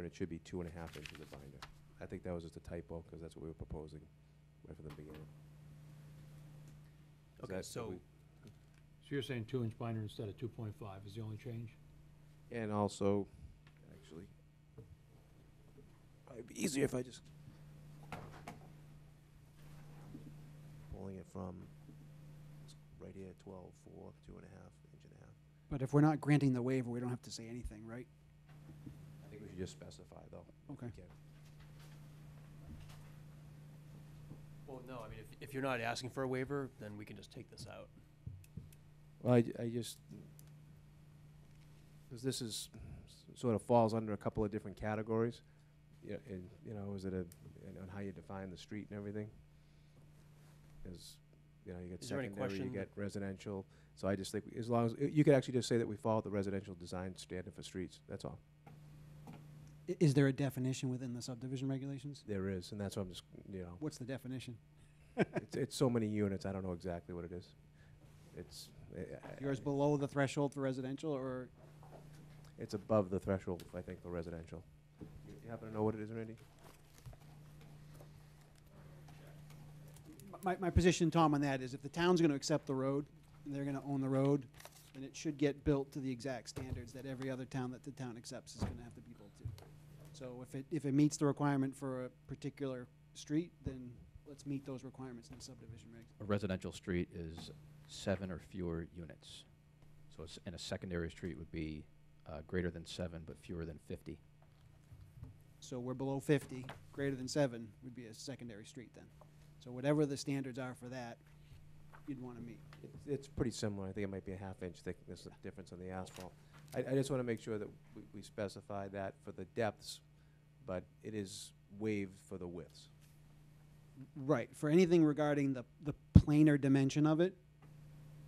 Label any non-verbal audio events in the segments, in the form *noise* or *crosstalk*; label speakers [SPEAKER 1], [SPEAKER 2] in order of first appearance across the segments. [SPEAKER 1] and it should be two and a half inches of binder. I think that was just a typo, because that's what we were proposing right from the beginning. Is
[SPEAKER 2] Okay,
[SPEAKER 1] that-
[SPEAKER 2] so,
[SPEAKER 3] So you're saying two-inch binder instead of two point five is the only change?
[SPEAKER 1] And also, actually, it'd be easier if I just pulling it from s- right here, twelve, four, two and a half, inch and a half.
[SPEAKER 4] But if we're not granting the waiver, we don't have to say anything, right?
[SPEAKER 1] I think we should just specify, though. if we
[SPEAKER 4] Okay.
[SPEAKER 1] can.
[SPEAKER 2] well, no, I mean, if, if you're not asking for a waiver, then we can just take this out.
[SPEAKER 1] Well, I, I just, because this is, s- sort of falls under a couple of different categories. Yeah, and, you know, is it a, and on how you define the street and everything? Is, you know, you get
[SPEAKER 2] Is there any
[SPEAKER 1] secondary, you
[SPEAKER 2] question
[SPEAKER 1] get
[SPEAKER 2] that-
[SPEAKER 1] residential, so I just think, as long as, you could actually just say that we follow the residential design standard for streets, that's all.
[SPEAKER 4] I- Is there a definition within the subdivision regulations?
[SPEAKER 1] There is, and that's what I'm just, you know,
[SPEAKER 4] What's the definition?
[SPEAKER 1] it's, it's so many units, I don't know exactly what it is. It's, eh, I- I-
[SPEAKER 4] Yours below the threshold for residential or
[SPEAKER 1] It's above the threshold, I think, for residential. You you happen to know what it is, Randy?
[SPEAKER 4] my, my position, Tom, on that is if the town's gonna accept the road and they're gonna own the road, then it should get built to the exact standards that every other town that the town accepts is gonna have to be built to. So if it, if it meets the requirement for a particular street, then let's meet those requirements in the subdivision regs.
[SPEAKER 5] a residential street is seven or fewer units. So it's, and a secondary street would be uh, greater than seven, but fewer than 50.
[SPEAKER 4] So we're below fifty, greater than seven would be a secondary street then. So whatever the standards are for that, you'd wanna meet.
[SPEAKER 1] It's- It's pretty similar. I think it might be a half inch thickness of difference on the asphalt. I, I just want to make sure that we- we specify that for the depths, but it is waived for the widths.
[SPEAKER 4] Right, for anything regarding the, the planar dimension of it,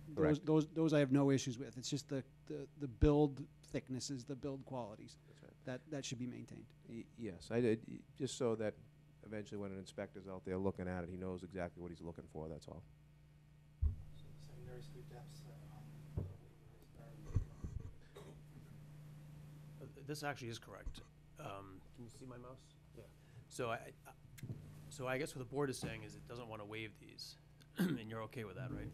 [SPEAKER 4] those,
[SPEAKER 1] Correct.
[SPEAKER 4] those, those I have no issues with. It's just the, the, the build thicknesses, the build qualities,
[SPEAKER 1] That's right.
[SPEAKER 4] that, that should be maintained.
[SPEAKER 1] Y- Yes, I did, y- just so that eventually when an inspector's out there looking at it, he knows exactly what he's looking for, that's all.
[SPEAKER 2] Uh, This actually is correct. Um, Can you see my mouse? Yeah. So I, I- so I guess what the board is saying is it doesn't want to waive these, *clears throat* and you're okay with that, right?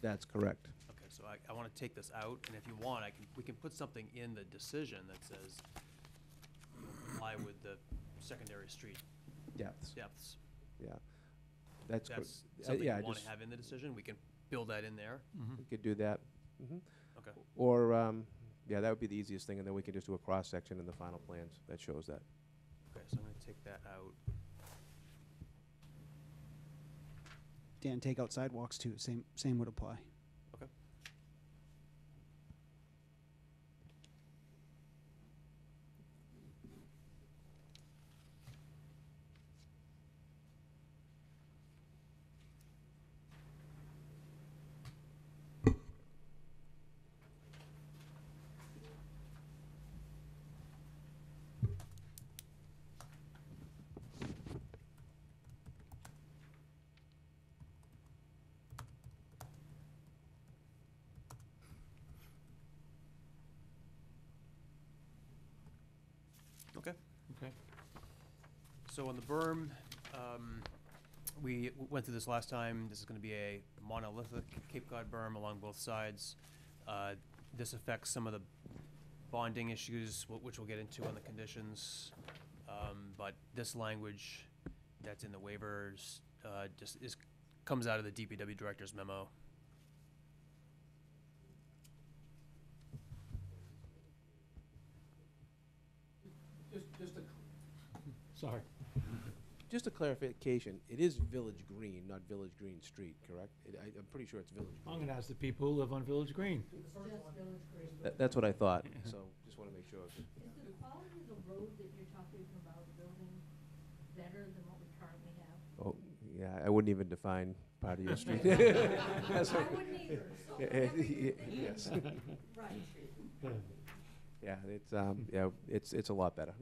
[SPEAKER 1] That's correct.
[SPEAKER 2] Okay, so I, I want to take this out, and if you want, I can, we can put something in the decision that says comply with the secondary street
[SPEAKER 1] Depths,
[SPEAKER 2] depths.
[SPEAKER 1] yeah. That's, cor-
[SPEAKER 2] That's
[SPEAKER 1] uh,
[SPEAKER 2] something
[SPEAKER 1] yeah,
[SPEAKER 2] you
[SPEAKER 1] I
[SPEAKER 2] want
[SPEAKER 1] just-
[SPEAKER 2] to have in the decision. We can build that in there.
[SPEAKER 1] we could do that. Mhm.
[SPEAKER 2] Okay.
[SPEAKER 1] Or, um, yeah, that would be the easiest thing, and then we can just do a cross-section in the final plans that shows that.
[SPEAKER 2] Okay, so I'm going to take that out.
[SPEAKER 4] Dan, take out sidewalks too, same, same would apply.
[SPEAKER 2] Okay.
[SPEAKER 3] Okay.
[SPEAKER 2] So on the berm, um, we w- went through this last time. This is gonna be a monolithic Cape Cod berm along both sides. Uh, this affects some of the bonding issues, wh- which we'll get into on the conditions. Um, but this language that's in the waivers, uh, just is, comes out of the DPW director's memo.
[SPEAKER 3] Sorry.
[SPEAKER 1] Just a clarification, it is Village Green, not Village Green Street, correct? It- I, I'm pretty sure it's Village
[SPEAKER 3] I'm
[SPEAKER 1] Green.
[SPEAKER 3] gonna ask the people who live on Village Green.
[SPEAKER 1] That, that's what I thought, so just wanna make sure.
[SPEAKER 6] Is the quality of the road that you're talking about building better than what we currently have?
[SPEAKER 1] Oh, yeah, I wouldn't even define part of your
[SPEAKER 6] *laughs*
[SPEAKER 1] street. *laughs* That's
[SPEAKER 6] I
[SPEAKER 1] what-
[SPEAKER 6] wouldn't either, so
[SPEAKER 1] Yeah,
[SPEAKER 6] whatever you
[SPEAKER 1] yeah,
[SPEAKER 6] think,
[SPEAKER 1] Yes,
[SPEAKER 6] *laughs* right.
[SPEAKER 1] yeah, it's, um, yeah, it's, it's a lot better.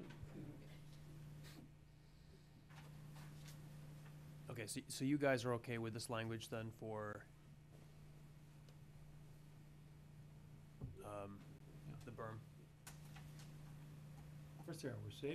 [SPEAKER 2] Okay, so, so you guys are okay with this language then for um, the berm? um,
[SPEAKER 3] First there, we're saving